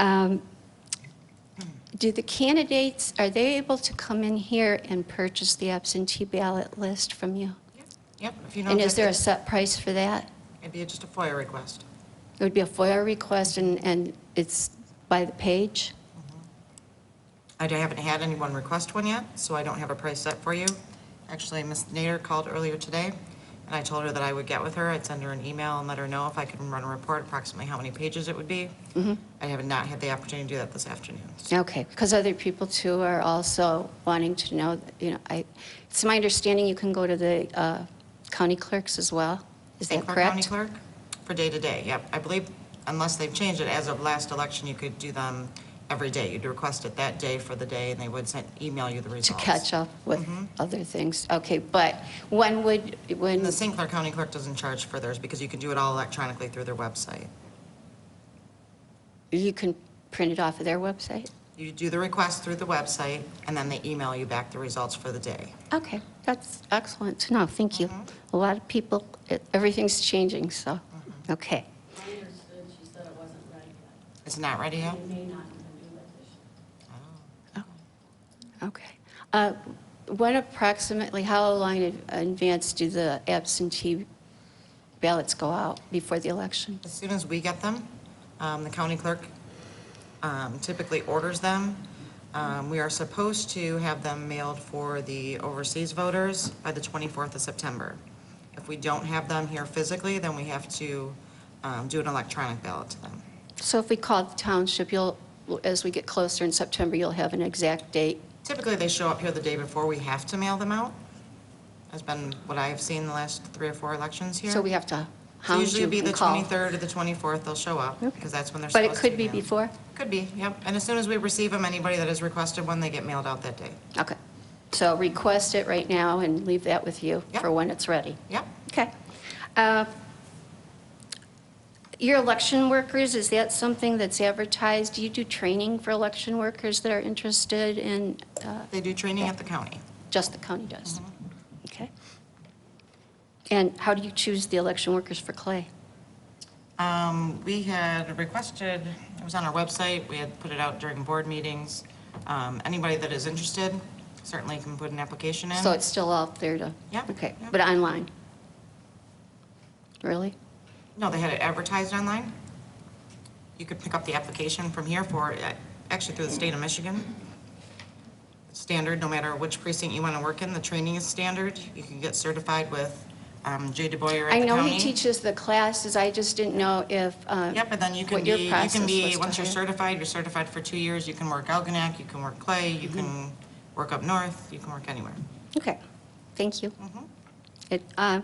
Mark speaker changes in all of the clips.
Speaker 1: Um, Do the candidates, are they able to come in here and purchase the absentee ballot list from you?
Speaker 2: Yep, if you know.
Speaker 1: And is there a
Speaker 2: that-
Speaker 1: set price for that?
Speaker 2: It'd be just a FOIA request.
Speaker 1: It would be a FOIA request, and, and it's by the page?
Speaker 2: I haven't had anyone request one yet, so I don't have a price set for you. Actually, Ms. Nader called earlier today, and I told her that I would get with her. I'd send her an email and let her know if I can run a report, approximately how many pages it would be.
Speaker 1: Mm-hmm.
Speaker 2: I have not had the opportunity to do that this afternoon.
Speaker 1: Okay, because other people too are also wanting to know, you know, I, it's my understanding you can go to the uh, county clerks as well? Is
Speaker 2: St.
Speaker 1: that
Speaker 2: Clair County
Speaker 1: correct?
Speaker 2: Clerk for day-to-day, yep. I believe, unless they've changed it, as of last election, you could do them every day. You'd request it that day for the day, and they would send, email you the
Speaker 1: To
Speaker 2: results.
Speaker 1: catch up with
Speaker 2: Mm-hmm.
Speaker 1: other things? Okay, but when would, when?
Speaker 2: And the St. Clair County Clerk doesn't charge for theirs because you can do it all electronically through their website.
Speaker 1: You can print it off of their website?
Speaker 2: You do the request through the website, and then they email you back the results for the day.
Speaker 1: Okay, that's excellent to know, thank you.
Speaker 2: Mm-hmm.
Speaker 1: A lot of people, it- everything's changing, so, okay.
Speaker 3: I understood she said it wasn't ready yet.
Speaker 2: It's not ready yet?
Speaker 3: They may not even do it this year.
Speaker 1: Okay. Uh, When approximately, how long in advance do the absentee ballots go out before the election?
Speaker 2: As soon as we get them, um, the county clerk um, typically orders them. Um, We are supposed to have them mailed for the overseas voters by the 24th of September. If we don't have them here physically, then we have to um, do an electronic ballot to them.
Speaker 1: So if we call the township, you'll, as we get closer in September, you'll have an exact date?
Speaker 2: Typically, they show up here the day before we have to mail them out. That's been what I've seen the last three or four elections here.
Speaker 1: So we have to
Speaker 2: So
Speaker 1: hound
Speaker 2: usually
Speaker 1: you
Speaker 2: it'd be the
Speaker 1: and call?
Speaker 2: 23rd or the 24th, they'll show up, because that's when they're
Speaker 1: But
Speaker 2: supposed to.
Speaker 1: it could be
Speaker 2: mailed.
Speaker 1: before?
Speaker 2: Could be, yep. And as soon as we receive them, anybody that has requested one, they get mailed out that day.
Speaker 1: Okay. So request it right now and leave that with you
Speaker 2: Yep.
Speaker 1: for when it's ready?
Speaker 2: Yep.
Speaker 1: Okay. Uh, Your election workers, is that something that's advertised? Do you do training for election workers that are interested in, uh,
Speaker 2: They do training at the county.
Speaker 1: just the county does?
Speaker 2: Mm-hmm.
Speaker 1: Okay. And how do you choose the election workers for Clay?
Speaker 2: Um, We had requested, it was on our website, we had put it out during board meetings. Um, Anybody that is interested certainly can put an application in.
Speaker 1: So it's still out there to?
Speaker 2: Yep,
Speaker 1: Okay,
Speaker 2: yep.
Speaker 1: but online? Really?
Speaker 2: No, they had it advertised online. You could pick up the application from here for, uh, actually through the state of Michigan. Standard, no matter which precinct you want to work in, the training is standard. You can get certified with um, Jay DeBoyer
Speaker 1: I
Speaker 2: at the county.
Speaker 1: know he teaches the classes, I just didn't know if, uh,
Speaker 2: Yep, and then you can
Speaker 1: what
Speaker 2: be,
Speaker 1: your
Speaker 2: you
Speaker 1: process
Speaker 2: can be,
Speaker 1: was
Speaker 2: once
Speaker 1: to
Speaker 2: you're
Speaker 1: hire.
Speaker 2: certified, you're certified for two years, you can work Algonac, you can work Clay, you
Speaker 1: Mm-hmm.
Speaker 2: can work up north, you can work anywhere. Mm-hmm.
Speaker 1: Okay, thank you. It, uh,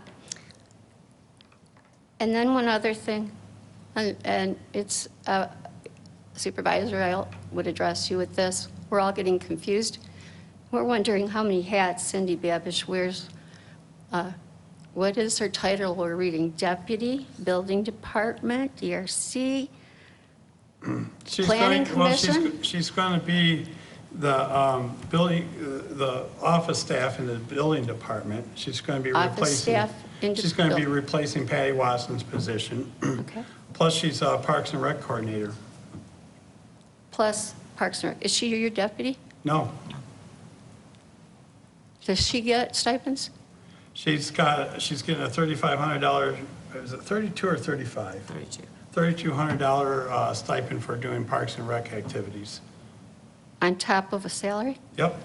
Speaker 1: And then one other thing, and- and it's uh, Supervisor, I would address you with this. We're all getting confused. We're wondering how many hats Cindy Babish wears. Uh, What is her title? We're reading Deputy, Building Department, DRC.
Speaker 4: She's
Speaker 1: Planning
Speaker 4: going- well, she's-
Speaker 1: Commission?
Speaker 4: She's going to be the um, building, the office staff in the building department. She's going to be
Speaker 1: Office
Speaker 4: replacing.
Speaker 1: staff in the
Speaker 4: She's going to be
Speaker 1: buil-
Speaker 4: replacing Patty Watson's position.
Speaker 1: Okay.
Speaker 4: Plus, she's uh, Parks and Rec coordinator.
Speaker 1: Plus Parks and Rec. Is she your deputy?
Speaker 4: No,
Speaker 1: Does she get stipends?
Speaker 4: she's got, she's getting a $3,500, is it 32 or 35?
Speaker 2: Thirty-two.
Speaker 4: $3,200 uh, stipend for doing Parks and Rec activities.
Speaker 1: On top of a salary?
Speaker 4: Yep,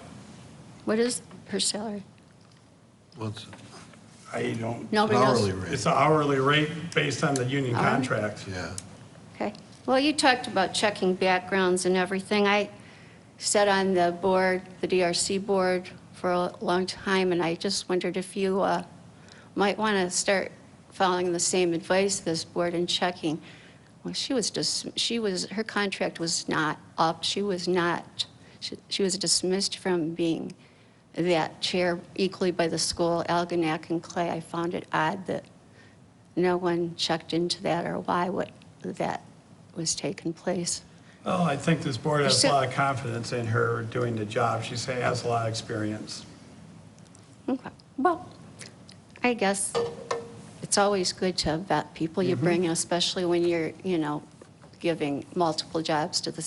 Speaker 1: What is her salary?
Speaker 5: What's
Speaker 4: I don't,
Speaker 1: Nobody knows?
Speaker 5: hourly rate?
Speaker 4: it's an hourly rate based on the union
Speaker 1: Hourly?
Speaker 4: contract.
Speaker 5: Yeah.
Speaker 1: Okay. Well, you talked about checking backgrounds and everything. I sat on the board, the DRC board, for a long time, and I just wondered if you uh, might want to start following the same advice this board and checking. Well, she was just, she was, her contract was not up. She was not, she- she was dismissed from being that chair equally by the school, Algonac and Clay. I found it odd that no one checked into that or why what, that was taking place.
Speaker 4: Well, Oh, I think this board has a
Speaker 1: So-
Speaker 4: lot of confidence in her doing the job. She say- has a lot of experience.
Speaker 1: Okay, well, I guess it's always good to vet people you bring in, especially when you're, you know, giving multiple jobs to the